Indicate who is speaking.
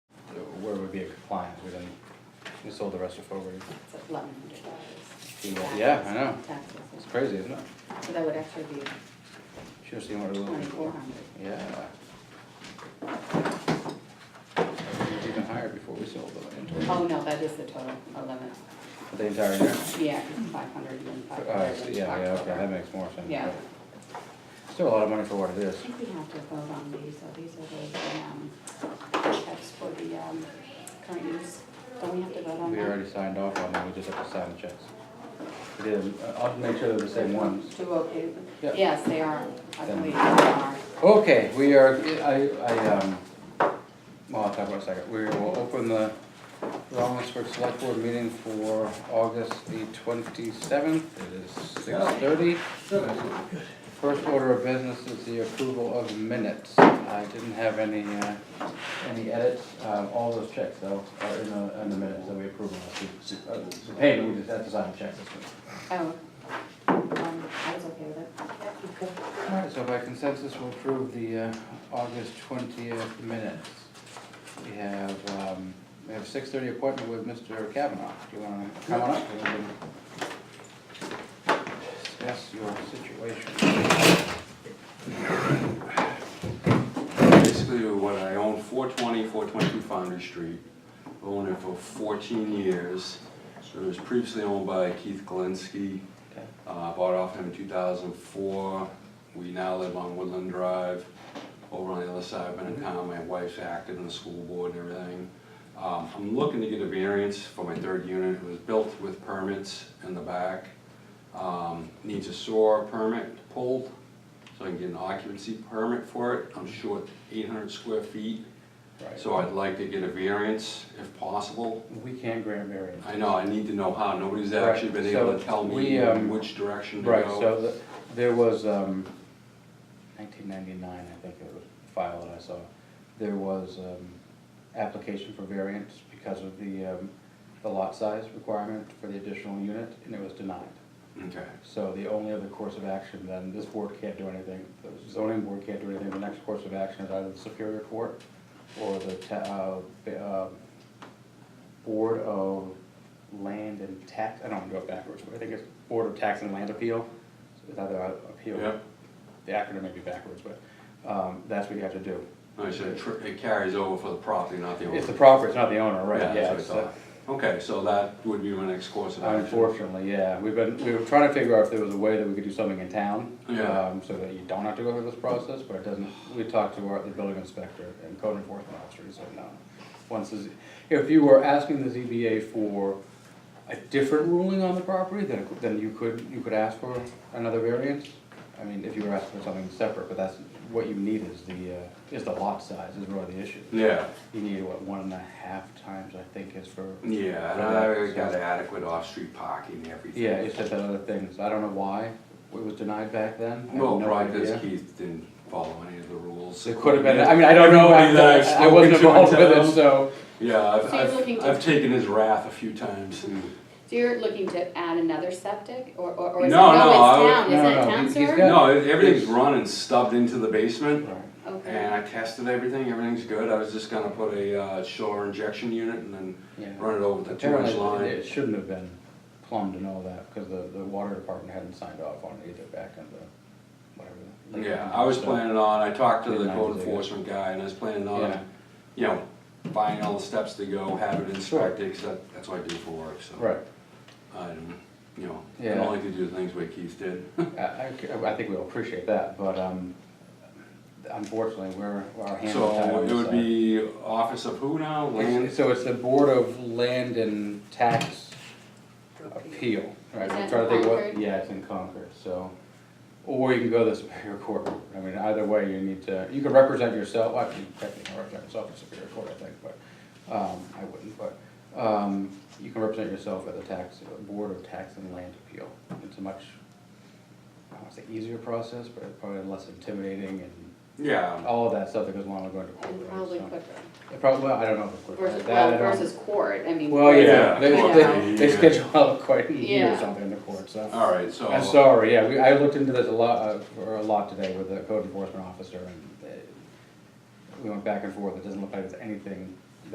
Speaker 1: compliant, we didn't, we sold the rest of forward.
Speaker 2: It's eleven hundred dollars.
Speaker 1: Yeah, I know.
Speaker 2: Taxes.
Speaker 1: It's crazy, isn't it?
Speaker 2: So that would actually be
Speaker 1: Should've seen what it was looking
Speaker 2: twenty-four
Speaker 1: for.
Speaker 2: hundred.
Speaker 1: Yeah. It was even higher before we sold the inventory,
Speaker 2: Oh, no, that is the total, eleven,
Speaker 1: the entire year.
Speaker 2: yeah, five hundred and then five
Speaker 1: Oh, I
Speaker 2: hundred
Speaker 1: see.
Speaker 2: in
Speaker 1: yeah, yeah, okay, that
Speaker 2: October.
Speaker 1: makes more sense.
Speaker 2: Yeah.
Speaker 1: but Still a lot of money for what it is.
Speaker 2: I think we have to vote on these, so these are those, um, checks for the, um, current use. Don't we have to vote on
Speaker 1: We
Speaker 2: that?
Speaker 1: already signed off on it, we just have to sign the checks. We did, uh, I'll make sure they're the same ones.
Speaker 2: To vote, eh,
Speaker 1: Yeah.
Speaker 2: yes, they are, I
Speaker 1: Then-
Speaker 2: believe they are.
Speaker 1: Okay, we are, I, I, um, well, I'll talk about it in a second. We will open the Rollinsford Select Board meeting for August the twenty-seventh. It is six thirty. First order of business is the approval of minutes. I didn't have any, uh, any edits. Uh, all those checks though are in the, in the minutes that we approved last week. Uh, The payment, we just had to sign the check this week.
Speaker 2: Oh, um, I was okay with it.
Speaker 1: All right, so by consensus, we'll approve the uh, August twentieth minutes. We have, um, we have six thirty appointment with Mr. Kavanaugh. Do you wanna come on up? and we can Discuss your situation.
Speaker 3: Basically, what I own, 420, 422 Foundry Street, owned it for 14 years. It was previously owned by Keith Galinsky,
Speaker 1: Okay.
Speaker 3: Uh, bought off him in 2004. We now live on Woodland Drive, over on the other side of Benetcon. My wife's active in the school board and everything. Um, I'm looking to get a variance for my third unit. It was built with permits in the back. Um, Needs a SOAR permit pulled, so I can get an occupancy permit for it. I'm short 800 square feet,
Speaker 1: Right.
Speaker 3: so I'd like to get a variance if possible.
Speaker 1: We can't grant variance.
Speaker 3: I know, I need to know how. Nobody's
Speaker 1: Right,
Speaker 3: actually been able
Speaker 1: so
Speaker 3: to tell
Speaker 1: we,
Speaker 3: me
Speaker 1: um,
Speaker 3: which direction to go.
Speaker 1: Right, so the- there was, um, nineteen ninety-nine, I think it was filed, I saw. There was, um, application for variance because of the, um, the lot size requirement for the additional unit, and it was denied.
Speaker 3: Okay,
Speaker 1: So the only other course of action, then, this board can't do anything, the zoning board can't do anything, the next course of action is either the Superior Court or the, ta- uh, the, uh, Board of Land and Tax, I don't wanna go backwards, but I think it's Board of Tax and Land Appeal, it's either a- appeal.
Speaker 3: Yeah.
Speaker 1: The acronym may be backwards, but, um, that's what you have to do.
Speaker 3: I said, tr- it carries over for the property, not the owner.
Speaker 1: It's the property, it's not the owner, right, yeah.
Speaker 3: that's what I
Speaker 1: it's the-
Speaker 3: thought. Okay, so that would be my next course of action.
Speaker 1: Unfortunately, yeah, we've been, we were trying to figure out if there was a way that we could do something in town.
Speaker 3: Yeah.
Speaker 1: um, So that you don't have to go through this process, but it doesn't, we talked to our, the building inspector and code enforcement officer, he said no. Once, the Z- if you were asking the ZBA for a different ruling on the property, then, it- then you could, you could ask for another variance. I mean, if you were asking for something separate, but that's, what you need is the, uh, is the lot size is really the issue.
Speaker 3: Yeah,
Speaker 1: You need, what, one and a half times, I think, is for
Speaker 3: yeah, and I already got adequate off-street parking and everything.
Speaker 1: yeah, it's just that other things, I don't know why it was denied back then. I have
Speaker 3: Well,
Speaker 1: no
Speaker 3: probably
Speaker 1: idea.
Speaker 3: because Keith didn't follow any of the rules.
Speaker 1: It could have been, I mean, I don't know,
Speaker 3: Everybody that I've
Speaker 1: I wasn't
Speaker 3: spoken to in
Speaker 1: involved with it,
Speaker 3: town.
Speaker 1: so.
Speaker 3: Yeah, I've,
Speaker 2: So you're looking
Speaker 3: I've,
Speaker 2: to-
Speaker 3: I've taken his wrath a few times.
Speaker 2: So you're looking to add another septic, or, or, or is it,
Speaker 3: No,
Speaker 2: no,
Speaker 3: no, I would-
Speaker 2: it's town,
Speaker 1: no,
Speaker 2: isn't it
Speaker 1: no,
Speaker 2: town
Speaker 1: he's
Speaker 2: sewer?
Speaker 1: got-
Speaker 3: No, everything's run and stubbed into the basement. And
Speaker 2: Okay,
Speaker 3: I tested everything, everything's good, I was just gonna put a uh, shower injection unit and then run it over with the two-inch
Speaker 1: Apparently,
Speaker 3: line.
Speaker 1: it shouldn't have been plumbed and all that, because the, the water department hadn't signed off on it either back in the, whatever. late
Speaker 3: Yeah, I was
Speaker 1: 90s, so-
Speaker 3: planning on, I talked to the
Speaker 1: Midnight
Speaker 3: code
Speaker 1: is a good-
Speaker 3: enforcement guy, and I was planning
Speaker 1: Yeah.
Speaker 3: on, you know, buying all the steps to go, have it inspected, 'cause that, that's what I do for work, so.
Speaker 1: Right,
Speaker 3: I don't, you know, I
Speaker 1: Yeah.
Speaker 3: don't like to do things way Keith did.
Speaker 1: I, I, I think we'll appreciate that, but, um, unfortunately, we're, our hands are tied.
Speaker 3: So
Speaker 1: on
Speaker 3: it
Speaker 1: this
Speaker 3: would
Speaker 1: side.
Speaker 3: be office of who now,
Speaker 1: uh, It's-
Speaker 3: land?
Speaker 1: So it's the Board of Land and Tax Appeal, right,
Speaker 2: Is
Speaker 1: I'm
Speaker 2: that
Speaker 1: trying to think what,
Speaker 2: Concord?
Speaker 1: yeah, it's in Concord, so. Or you can go to the Superior Court, I mean, either way, you need to, you can represent yourself, well, you technically can represent yourself at Superior Court, I think, but, um, I wouldn't, but, um, you can represent yourself at the tax, Board of Tax and Land Appeal. It's a much, I don't wanna say easier process, but it's probably less intimidating and
Speaker 3: Yeah,
Speaker 1: all of that stuff that goes along with going to court.
Speaker 2: and
Speaker 1: right,
Speaker 2: probably
Speaker 1: so.
Speaker 2: quicker,
Speaker 1: It probably, well, I don't know if it's quicker.
Speaker 2: versus,
Speaker 1: That I
Speaker 2: well,
Speaker 1: don't-
Speaker 2: versus court, I mean.
Speaker 1: well, yeah,
Speaker 3: Yeah,
Speaker 1: they,
Speaker 2: court
Speaker 1: they,
Speaker 3: would
Speaker 1: they
Speaker 3: be, uh,
Speaker 1: schedule out quite a year or
Speaker 2: Yeah.
Speaker 1: something in the court, so.
Speaker 3: alright, so.
Speaker 1: I'm sorry, yeah, we, I looked into this a lot, uh, for a lot today with the code enforcement officer and uh, we went back and forth, it doesn't look like there's anything